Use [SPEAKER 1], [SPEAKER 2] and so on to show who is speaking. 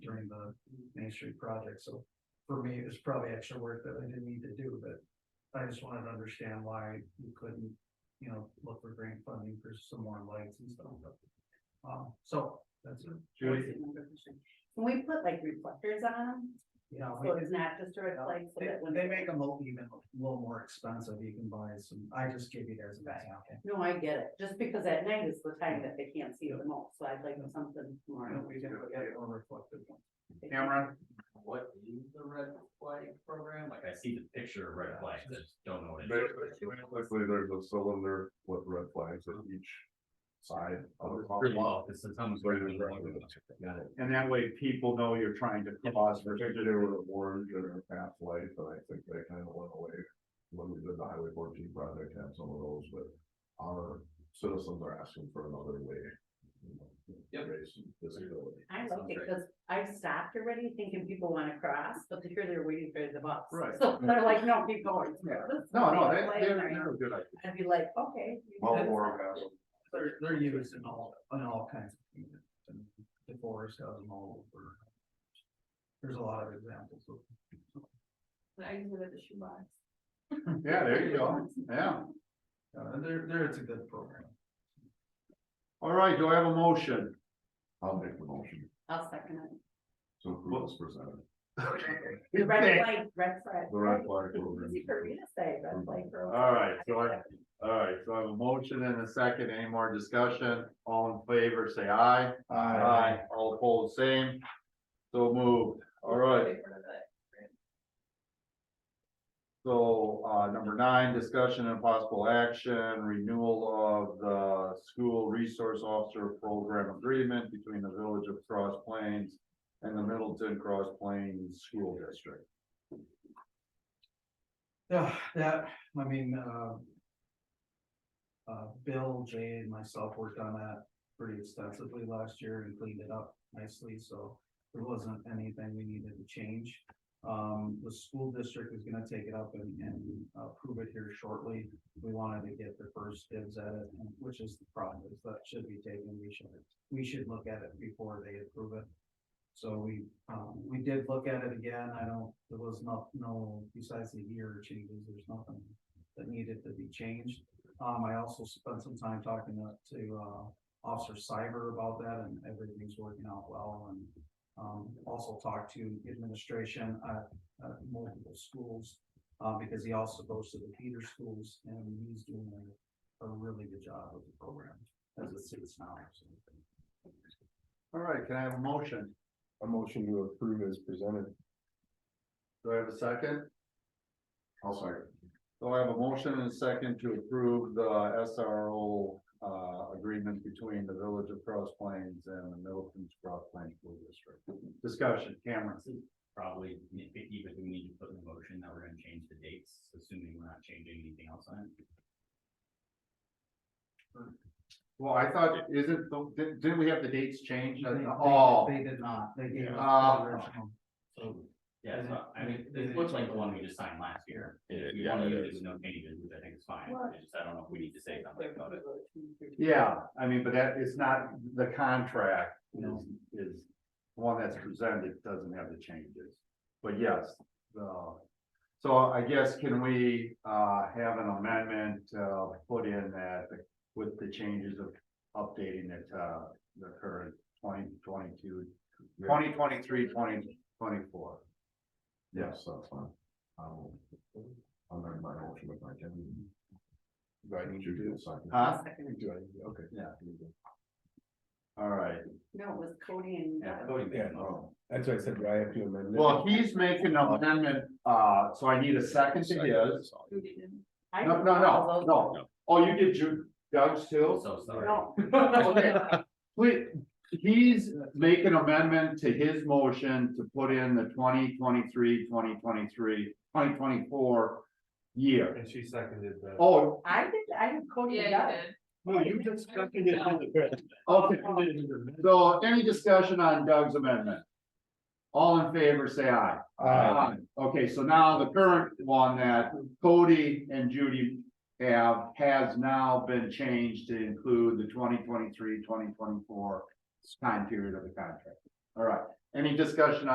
[SPEAKER 1] the Main Street project, so. For me, it was probably extra work that I didn't need to do, but I just wanted to understand why you couldn't, you know, look for grant funding for some more lights and stuff. but, Um, so, that's it.
[SPEAKER 2] That's another question. Can we put like reflectors on them?
[SPEAKER 3] Oh,
[SPEAKER 1] Yeah, we
[SPEAKER 2] So
[SPEAKER 1] can-
[SPEAKER 2] it's not just a reflect, so
[SPEAKER 1] They,
[SPEAKER 2] that when.
[SPEAKER 1] they make them look even a little more expensive, you can buy some, I just give you theirs as an example.
[SPEAKER 2] No, I get it, just because at night is the time that they can't see the most, so I'd like something more.
[SPEAKER 1] Or we can look at it or reflective one.
[SPEAKER 3] Cameron,
[SPEAKER 4] What is the red flag program? Like I see the picture of red flags, I just don't know what it is.
[SPEAKER 3] basically, there's a cylinder with red flags at each side of the
[SPEAKER 4] Pretty
[SPEAKER 3] column.
[SPEAKER 4] well, it's someone's
[SPEAKER 3] Right,
[SPEAKER 4] doing
[SPEAKER 3] right,
[SPEAKER 4] it.
[SPEAKER 3] right.
[SPEAKER 4] Got it.
[SPEAKER 3] And that way people know you're trying to cause, particularly with orange or path light, but I think they kind of went away. When we did the highway fourteen project, had some of those, but our citizens are asking for another way. you know, to
[SPEAKER 4] Yep.
[SPEAKER 3] Raise visibility.
[SPEAKER 2] I like
[SPEAKER 4] Sounds
[SPEAKER 2] it,
[SPEAKER 4] great.
[SPEAKER 2] cause I've stopped already thinking people wanna cross, but here they're waiting for the bus.
[SPEAKER 3] Right.
[SPEAKER 2] So they're like, no, keep going.
[SPEAKER 3] Yeah.
[SPEAKER 2] This is
[SPEAKER 3] No, no,
[SPEAKER 2] the
[SPEAKER 3] they,
[SPEAKER 2] way
[SPEAKER 3] they're,
[SPEAKER 2] I'm going.
[SPEAKER 3] they're a good idea.
[SPEAKER 2] I'd be like, okay. you
[SPEAKER 3] Well,
[SPEAKER 2] guys-
[SPEAKER 3] or has
[SPEAKER 1] They're, they're used in all, in all kinds of units, and the forest has them all over. There's a lot of examples of.
[SPEAKER 5] I use it as a shoebox.
[SPEAKER 3] Yeah, there you go, yeah.
[SPEAKER 1] Uh, there, there, it's a good program.
[SPEAKER 3] All right, do I have a motion? I'll make the motion
[SPEAKER 2] I'll second it.
[SPEAKER 3] to approve as presented.
[SPEAKER 2] The red flag, red flag.
[SPEAKER 3] The red flag program.
[SPEAKER 2] Easy for me to say, red flag. for-
[SPEAKER 3] Mm-hmm. All right, so I- All right, so I have a motion and a second, any more discussion? All in favor, say aye.
[SPEAKER 1] Aye.
[SPEAKER 3] All opposed, same. So moved, all right,
[SPEAKER 5] Wait for the-
[SPEAKER 3] so, uh, number nine, discussion and possible action, renewal of the school resource officer program agreement between the village of Cross Plains and the Middleton Cross Plains School District.
[SPEAKER 1] Yeah, that, I mean, uh. Uh, Bill, Jay and myself worked on that pretty extensively last year and cleaned it up nicely, so. There wasn't anything we needed to change. Um, the school district is gonna take it up and, and uh, approve it here shortly. We wanted to get the first dibs at it, and- which is the problem, is that should be taken, we should, we should look at it before they approve it. So we, um, we did look at it again, I don't, there was not, no, besides the year changes, there's nothing that needed to be changed. Um, I also spent some time talking to, to, uh, Officer Cyber about that, and everything's working out well, and um, also talked to administration at, at multiple schools, uh, because he also goes to the feeder schools, and he's doing a, a really good job with the program, as it sits now, so.
[SPEAKER 3] All right, can I have a motion? A motion to approve as presented. Do I have a second? I'll second. So I have a motion and a second to approve the SRO uh agreement between the village of Cross Plains and the Middleton Cross Plains School District. Discussion, Cameron.
[SPEAKER 4] This is Probably nitpicky, but do we need to put in the motion that we're gonna change the dates, assuming we're not changing anything else on it.
[SPEAKER 3] Well, I thought, isn't, the- didn't, didn't we have the dates changed?
[SPEAKER 1] They- they-
[SPEAKER 3] Oh,
[SPEAKER 1] They did not, they gave us
[SPEAKER 3] Ah.
[SPEAKER 1] the original. So,
[SPEAKER 4] Yeah, so I mean,
[SPEAKER 1] Mhm.
[SPEAKER 4] it looks like the one we just signed last year. If we
[SPEAKER 3] Yeah,
[SPEAKER 4] want to
[SPEAKER 3] it
[SPEAKER 4] use it with no changes, which I think is fine, I just, I don't know if we need to say something about it.
[SPEAKER 3] yeah, I mean, but that is not, the contract is,
[SPEAKER 1] No.
[SPEAKER 3] is one that's presented, doesn't have the changes. But yes, the, so I guess can we, uh, have an amendment, uh, put in that with the changes of updating it, uh, the current 2022, 2023, 2024. Yes, that's fine. I'll, I'll amend my motion with my ten. Do I need you to do a second? Huh?
[SPEAKER 2] I'll second it.
[SPEAKER 3] Okay. Yeah. All right.
[SPEAKER 2] No, it was Cody and. uh,
[SPEAKER 4] Yeah,
[SPEAKER 2] Doug.
[SPEAKER 4] voting
[SPEAKER 6] Yeah,
[SPEAKER 4] mechanism.
[SPEAKER 3] Oh.
[SPEAKER 6] That's why I said, do I have to amend it?
[SPEAKER 3] Well, he's making an amendment, uh, so I need a second to his.
[SPEAKER 5] Who didn't?
[SPEAKER 2] I
[SPEAKER 3] No,
[SPEAKER 2] don't
[SPEAKER 3] no,
[SPEAKER 2] know
[SPEAKER 3] no,
[SPEAKER 2] those-
[SPEAKER 3] no. Oh, you did Ju- Doug's too?
[SPEAKER 4] So sorry.
[SPEAKER 2] No,
[SPEAKER 3] Okay. Wait, he's making amendment to his motion to put in the 2023, 2023, 2024 year.
[SPEAKER 6] And she seconded that.
[SPEAKER 3] Oh,
[SPEAKER 2] I did, I had Cody and
[SPEAKER 5] Yeah,
[SPEAKER 2] Doug.
[SPEAKER 5] you did.
[SPEAKER 6] No, you just seconded it. in the press.
[SPEAKER 3] okay. So any discussion on Doug's amendment? All in favor, say aye.
[SPEAKER 6] Aye.
[SPEAKER 3] Okay, so now the current one that Cody and Judy have, has now been changed to include the 2023, 2024 time period of the contract. All right, Any discussion